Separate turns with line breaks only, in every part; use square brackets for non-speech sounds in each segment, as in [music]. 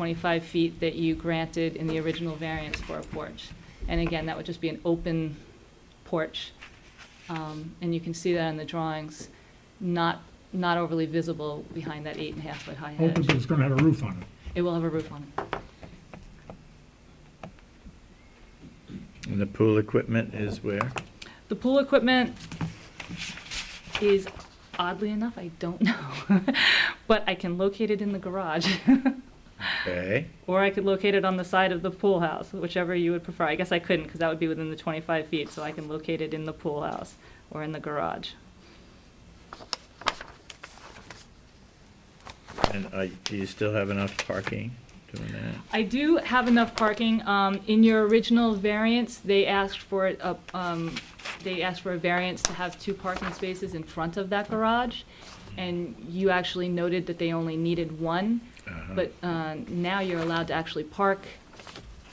25 feet that you granted in the original variance for a porch. And again, that would just be an open porch. Um, And you can see that in the drawings, not, not overly visible behind that eight and a half foot high
Open, but
hedge.
it's gonna have a roof on it.
It will have a roof on it.
And the pool equipment is where?
The pool equipment is oddly enough, I don't [laughs] know. But I can locate it in the garage. [laughs]
Okay,
Or I could locate it on the side of the pool house, whichever you would prefer. I guess I couldn't, because that would be within the 25 feet, so I can locate it in the pool house or in the garage.
and are, do you still have enough parking doing that?
I do have enough parking. Um, In your original variance, they asked for, it up, um, they asked for a variance to have two parking spaces in front of that garage, and you actually noted that they only needed one,
Uh-huh.
but uh, now you're allowed to actually park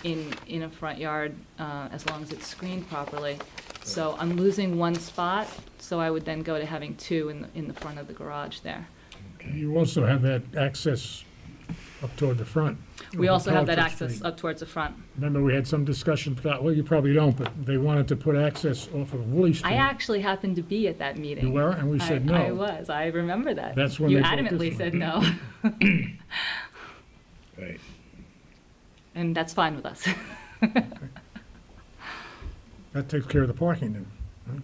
in, in a front yard uh, as long as it's screened properly. So I'm losing one spot, so I would then go to having two in, the- in the front of the garage there.
Okay.
You also have that access up toward the front.
We also have that
Culver
access
Street.
up towards the front.
Remember, we had some discussion, about- well, you probably don't, but they wanted to put access off of Woolly Street.
I actually happened to be at that meeting.
You were, and we
I-
said no.
I was, I remember that.
That's when
You
they built this
adamantly
one.
said no, [laughs]
Right,
and that's fine with us. [laughs]
That takes care of the parking then. right?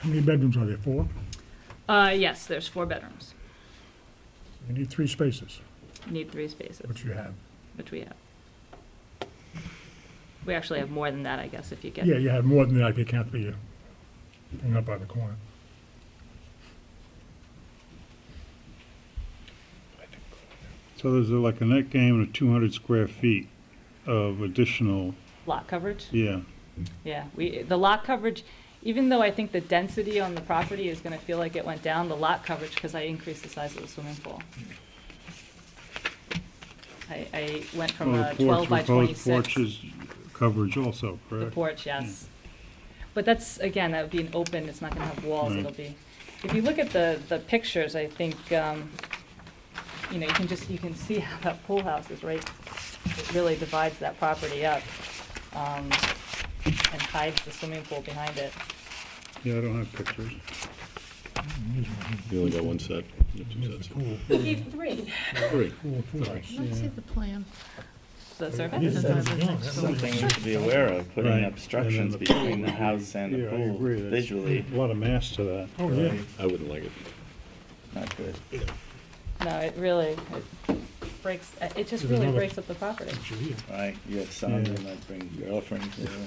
How many bedrooms are there? Four?
Uh, yes, there's four bedrooms,
You need three spaces,
need three spaces,
which you have.
which we have. We actually have more than that, I guess, if you get.
Yeah, you have more than that if you count the uh, thing up by the corner.
So there's a- like a net gain of two hundred square feet of additional,
Lot coverage?
yeah.
Yeah, we, the lot coverage, even though I think the density on the property is gonna feel like it went down, the lot coverage, because I increased the size of the swimming pool. I, I went from
Well,
a
the porch-
twelve by
proposed
twenty-six.
Porches coverage also,
The
correct?
porch, yes.
Mm.
But that's, again, that would be an open, it's not gonna have walls,
Right.
it'll be, if you look at the, the pictures, I think, um, you know, you can just, you can see [laughs] how that pool house is right, it really divides that property up, um, and hides the swimming pool behind it.
Yeah, I don't have pictures.
You only got one set, you have two
There's
sets.
the pool,
three.
Three.
pool, pool house.
Let me see the plan.
The
Yes,
surface?
That's
that's-
what
yeah,
I was
that's
like,
something.
Thing you should be aware of,
Right.
putting
And
obstructions
then the pool.
between the house and the
Yeah, I agree.
pool
That's-
visually,
A lot of mass to that.
Oh, yeah.
I wouldn't like it.
not good.
No, it really, it breaks, it just
There's
really
another-
breaks up the
[laughs]
property.
Sure, yeah.
Right, you have some,
Yeah.
you might bring girlfriends, you know.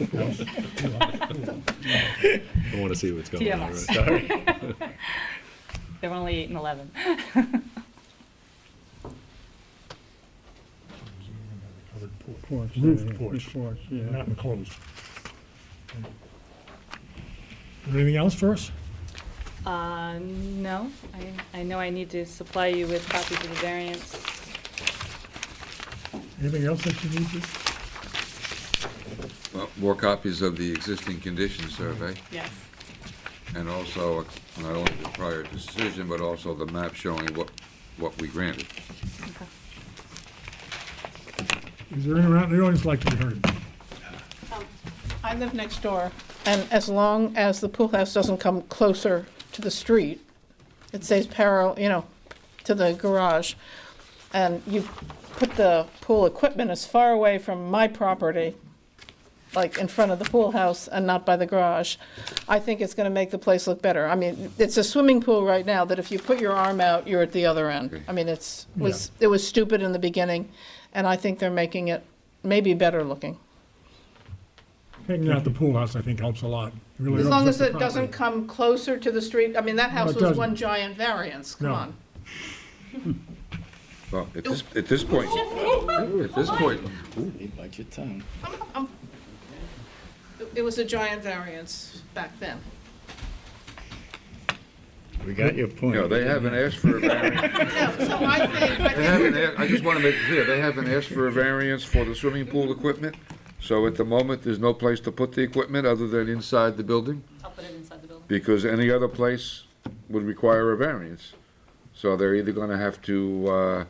[laughs]
I want to see what's going on.
TMI.
right?
sorry.
[laughs] They were only eight and eleven.
Covered porch.
Porch,
Roof
yeah,
porch.
roof Porch, yeah.
not enclosed. Anything else for us?
Uh, no, I, I know I need to supply you with copies of the variance.
Anything else that you need to?
Well, More copies of the existing condition survey,
Yes.
and also not only the prior decision, but also the map showing what, what we granted.
Is there anyone out in the audience like to be heard?
I live next door, and as long as the pool house doesn't come closer to the street, it stays parallel, you know, to the garage, and you put the pool equipment as far away from my property, like in front of the pool house and not by the garage, I think it's gonna make the place look better. I mean, it's a swimming pool right now that if you put your arm out, you're at the other end. I mean, it's, was, it was stupid in the beginning, and I think they're making it maybe better looking.
Taking out the pool house, I think, helps a lot. Really
As long
opens
as
up
it
the
doesn't
property.
come closer to the street, I mean, that house
it
was
doesn't.
one giant variance, come
No.
on.
Well, at this, at this point, at this point,
You bite your tongue.
It- It was a giant variance back then.
We got your
you
point.
know, they haven't asked for a variance.
No, so I think, I
They
think
haven't, a- I just want to make it clear, they haven't asked for a variance for the swimming pool equipment. So at the moment, there's no place to put the equipment other than inside the building,
I'll put it inside the building.
because any other place would require a variance. So they're either gonna have to, uh,